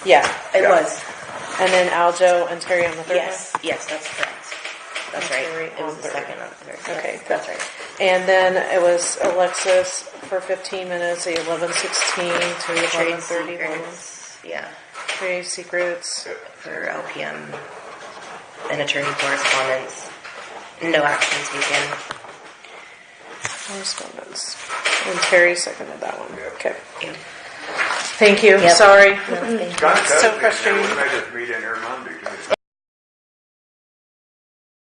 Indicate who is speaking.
Speaker 1: Yeah, it
Speaker 2: Yeah.
Speaker 1: was.
Speaker 3: And then Aljo and Terry on the third
Speaker 1: Yes, yes, that's correct. That's
Speaker 3: And
Speaker 1: right.
Speaker 3: Terry
Speaker 1: It was
Speaker 3: on
Speaker 1: the
Speaker 3: third.
Speaker 1: second on the third.
Speaker 3: one? Okay,
Speaker 1: Yes,
Speaker 3: good.
Speaker 1: That's right.
Speaker 3: And then it was Alexis for 15 minutes, the 1116 to
Speaker 1: Trade
Speaker 3: 1130.
Speaker 1: secrets, yeah,
Speaker 3: Trade secrets.
Speaker 1: for LPM and attorney correspondence. No actions taken.
Speaker 3: Correspondence. And Terry seconded that one.
Speaker 2: Yeah.
Speaker 3: Okay.
Speaker 1: Yeah.
Speaker 3: Thank you.
Speaker 1: Yep.
Speaker 3: Sorry.
Speaker 1: No, thank you.
Speaker 2: John
Speaker 3: So
Speaker 2: Cousins,
Speaker 3: frustrating.
Speaker 2: we made this meet in here Monday. too.